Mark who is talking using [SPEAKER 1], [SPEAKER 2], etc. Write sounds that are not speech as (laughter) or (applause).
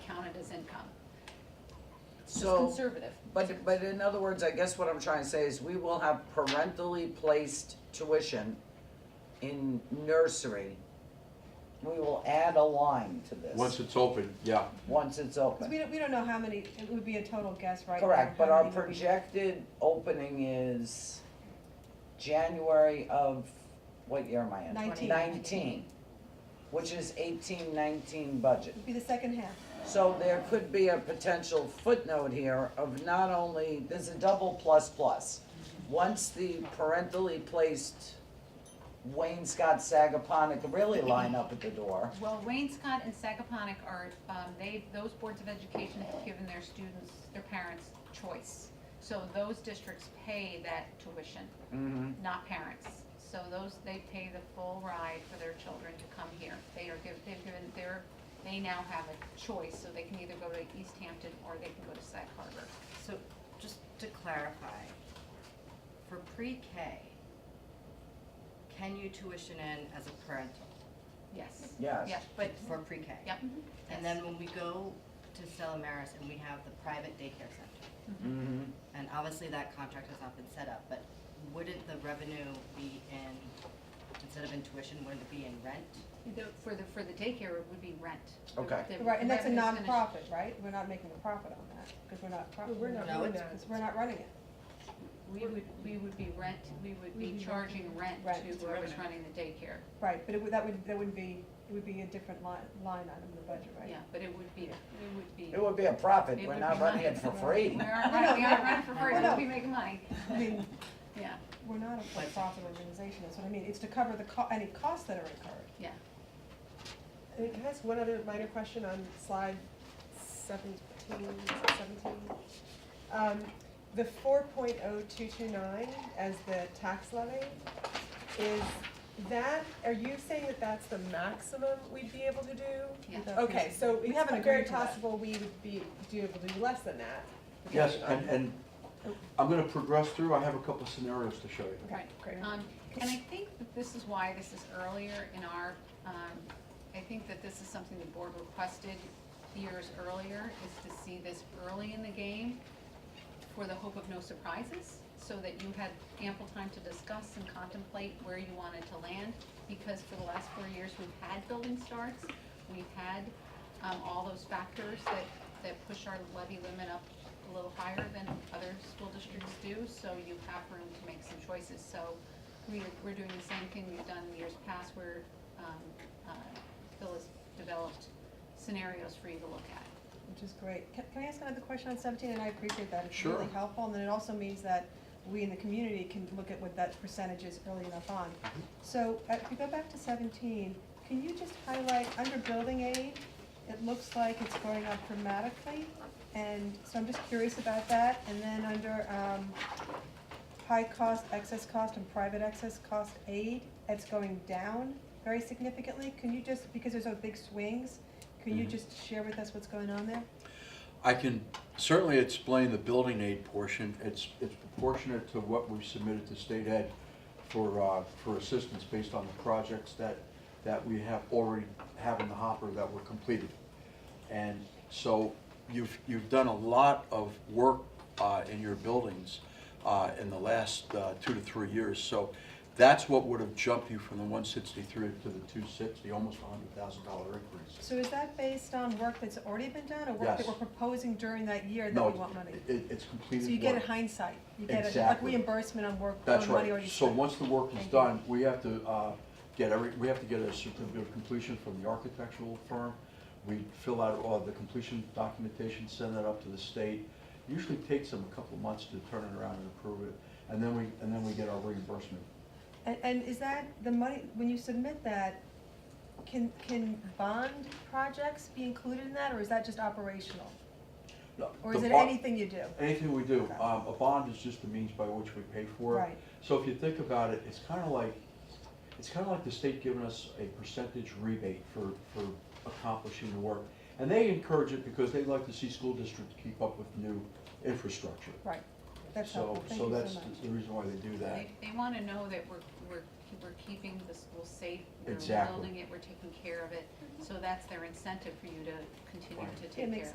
[SPEAKER 1] his income. It's
[SPEAKER 2] So,
[SPEAKER 1] conservative.
[SPEAKER 2] but, but in other words, I guess what I'm trying to say is we will have parentally placed tuition in nursery. We will add a line to this.
[SPEAKER 3] Once it's open, yeah.
[SPEAKER 2] Once it's
[SPEAKER 4] Because
[SPEAKER 2] open.
[SPEAKER 4] we don't, we don't know how many, it would be a total guess, right?
[SPEAKER 2] Correct, but
[SPEAKER 4] How
[SPEAKER 2] our
[SPEAKER 4] many would be-
[SPEAKER 2] projected opening is January of, what year am I in?
[SPEAKER 4] Nineteen.
[SPEAKER 2] Nineteen, which is eighteen, nineteen budget.
[SPEAKER 4] Would be the second half.
[SPEAKER 2] So there could be a potential footnote here of not only, there's a double plus plus. Once the parentally placed Wayne Scott Sagaponic really line up at the door,
[SPEAKER 1] Well, Wayne Scott and Sagaponic are, um, they, those boards of education have given their students, their parents, choice. So those districts pay that tuition,
[SPEAKER 2] Mm-hmm.
[SPEAKER 1] not parents. So those, they pay the full ride for their children to come here. They are given, they've given, they're, they now have a choice, so they can either go to East Hampton or they can go to Sag Harbor.
[SPEAKER 5] So just to clarify, for pre-K, can you tuition in as a parental
[SPEAKER 1] Yes.
[SPEAKER 2] Yes.
[SPEAKER 1] Yeah, but,
[SPEAKER 5] for pre-K?
[SPEAKER 1] yep.
[SPEAKER 5] And then when we go to Stella Maris and we have the private daycare center,
[SPEAKER 1] Mm-hmm.
[SPEAKER 2] mhm,
[SPEAKER 5] and obviously that contract has not been set up, but wouldn't the revenue be in, instead of in tuition, wouldn't it be in rent?
[SPEAKER 1] The- For the, for the daycare, it would be rent.
[SPEAKER 2] Okay.
[SPEAKER 1] The
[SPEAKER 4] Right, and that's a
[SPEAKER 1] revenue's gonna-
[SPEAKER 4] nonprofit, right? We're not making a profit on that, because we're not. pro-
[SPEAKER 6] Well, we're not
[SPEAKER 5] No,
[SPEAKER 6] doing
[SPEAKER 5] it's-
[SPEAKER 6] that.
[SPEAKER 4] Because we're not running it.
[SPEAKER 1] We would, we would be rent, we would be
[SPEAKER 6] We'd be
[SPEAKER 1] charging rent
[SPEAKER 4] Right.
[SPEAKER 1] to whoever's running the daycare.
[SPEAKER 4] Right, but it would, that would, that would be, it would be a different line, line item in the budget, right?
[SPEAKER 1] Yeah, but it would be, it would be.
[SPEAKER 2] It would be a profit,
[SPEAKER 1] It
[SPEAKER 2] we're
[SPEAKER 1] would
[SPEAKER 2] not
[SPEAKER 1] be
[SPEAKER 2] running
[SPEAKER 1] mine.
[SPEAKER 2] it for free.
[SPEAKER 1] (laughs) We aren't running, we aren't running for free,
[SPEAKER 4] No, no.
[SPEAKER 1] we'd be making money.
[SPEAKER 4] I mean,
[SPEAKER 1] Yeah,
[SPEAKER 4] we're not a for-profit organization, that's what I mean. It's to cover the co, any costs that are incurred.
[SPEAKER 1] yeah.
[SPEAKER 6] And can I ask one other minor question on slide seventeen, seventeen? Um, the four point oh two two nine as the tax levy, is that, are you saying that that's the maximum we'd be able to do?
[SPEAKER 1] Yeah.
[SPEAKER 6] Okay, so
[SPEAKER 4] We haven't
[SPEAKER 6] it's very
[SPEAKER 4] agreed to that.
[SPEAKER 6] possible we would be, do able to do less than that.
[SPEAKER 3] Yes,
[SPEAKER 6] depending on-
[SPEAKER 3] and, and I'm gonna progress through, I have a couple scenarios to show you.
[SPEAKER 6] Okay, great.
[SPEAKER 1] Um, and I think that this is why this is earlier in our, um, I think that this is something the board requested years earlier, is to see this early in the game for the hope of no surprises, so that you had ample time to discuss and contemplate where you wanted to land, because for the last four years, we've had building starts, we've had, um, all those factors that, that push our levy limit up a little higher than other school districts do, so you have room to make some choices, so we, we're doing the same thing we've done in years past, where, um, uh, Phil has developed scenarios for you to look at.
[SPEAKER 4] Which is great. Can, can I ask another question on seventeen? And I appreciate that. It's really
[SPEAKER 3] Sure.
[SPEAKER 4] helpful, and then it also means that we in the community can look at what that percentage is early enough on. So uh, if you go back to seventeen, can you just highlight, under building aid, it looks like it's going up dramatically, and so I'm just curious about that. And then under, um, high cost, excess cost, and private excess cost aid, it's going down very significantly. Can you just, because there's so big swings, can you
[SPEAKER 3] Mhm.
[SPEAKER 4] just share with us what's going on there?
[SPEAKER 3] I can certainly explain the building aid portion, it's, it's proportionate to what we've submitted to state ed for, uh, for assistance based on the projects that, that we have already have in the hopper that were completed. And so you've, you've done a lot of work uh, in your buildings uh, in the last uh, two to three years. So that's what would have jumped you from the 163 to the 260, almost a $100,000 increase.
[SPEAKER 4] So is that based on work that's already been done, or work
[SPEAKER 3] Yes.
[SPEAKER 4] that we're proposing during that year that
[SPEAKER 3] No,
[SPEAKER 4] we want money?
[SPEAKER 3] it- it's completed
[SPEAKER 4] So you get a
[SPEAKER 3] work.
[SPEAKER 4] hindsight, you get a, like
[SPEAKER 3] Exactly.
[SPEAKER 4] reimbursement on work,
[SPEAKER 3] That's
[SPEAKER 4] on money
[SPEAKER 3] right.
[SPEAKER 4] already
[SPEAKER 3] So
[SPEAKER 4] spent.
[SPEAKER 3] once the work is
[SPEAKER 4] Thank you.
[SPEAKER 3] done, we have to uh, get every, we have to get a certificate of completion from the architectural firm. We fill out all the completion documentation, send that up to the state. Usually takes them a couple of months to turn it around and approve it. And then we, and then we get our reimbursement.
[SPEAKER 4] And, and is that the money, when you submit that, can, can bond projects be included in that, or is that just operational? Or is
[SPEAKER 3] The
[SPEAKER 4] it
[SPEAKER 3] bond-
[SPEAKER 4] anything you do?
[SPEAKER 3] Anything we do. Um, A bond is just the means by which we pay for it.
[SPEAKER 4] Right.
[SPEAKER 3] So if you think about it, it's kind of like, it's kind of like the state giving us a percentage rebate for, for accomplishing the work. And they encourage it because they like to see school districts keep up with new infrastructure.
[SPEAKER 4] Right, that's helpful, thank
[SPEAKER 3] So, so
[SPEAKER 4] you
[SPEAKER 3] that's
[SPEAKER 4] so much.
[SPEAKER 3] the reason why they do that.
[SPEAKER 1] They, they wanna know that we're, we're, we're keeping the school safe, we're
[SPEAKER 3] Exactly.
[SPEAKER 1] building it, we're taking care of it, so that's their incentive for you to continue
[SPEAKER 3] Right.
[SPEAKER 1] to take
[SPEAKER 4] It
[SPEAKER 1] care of
[SPEAKER 4] makes
[SPEAKER 1] it.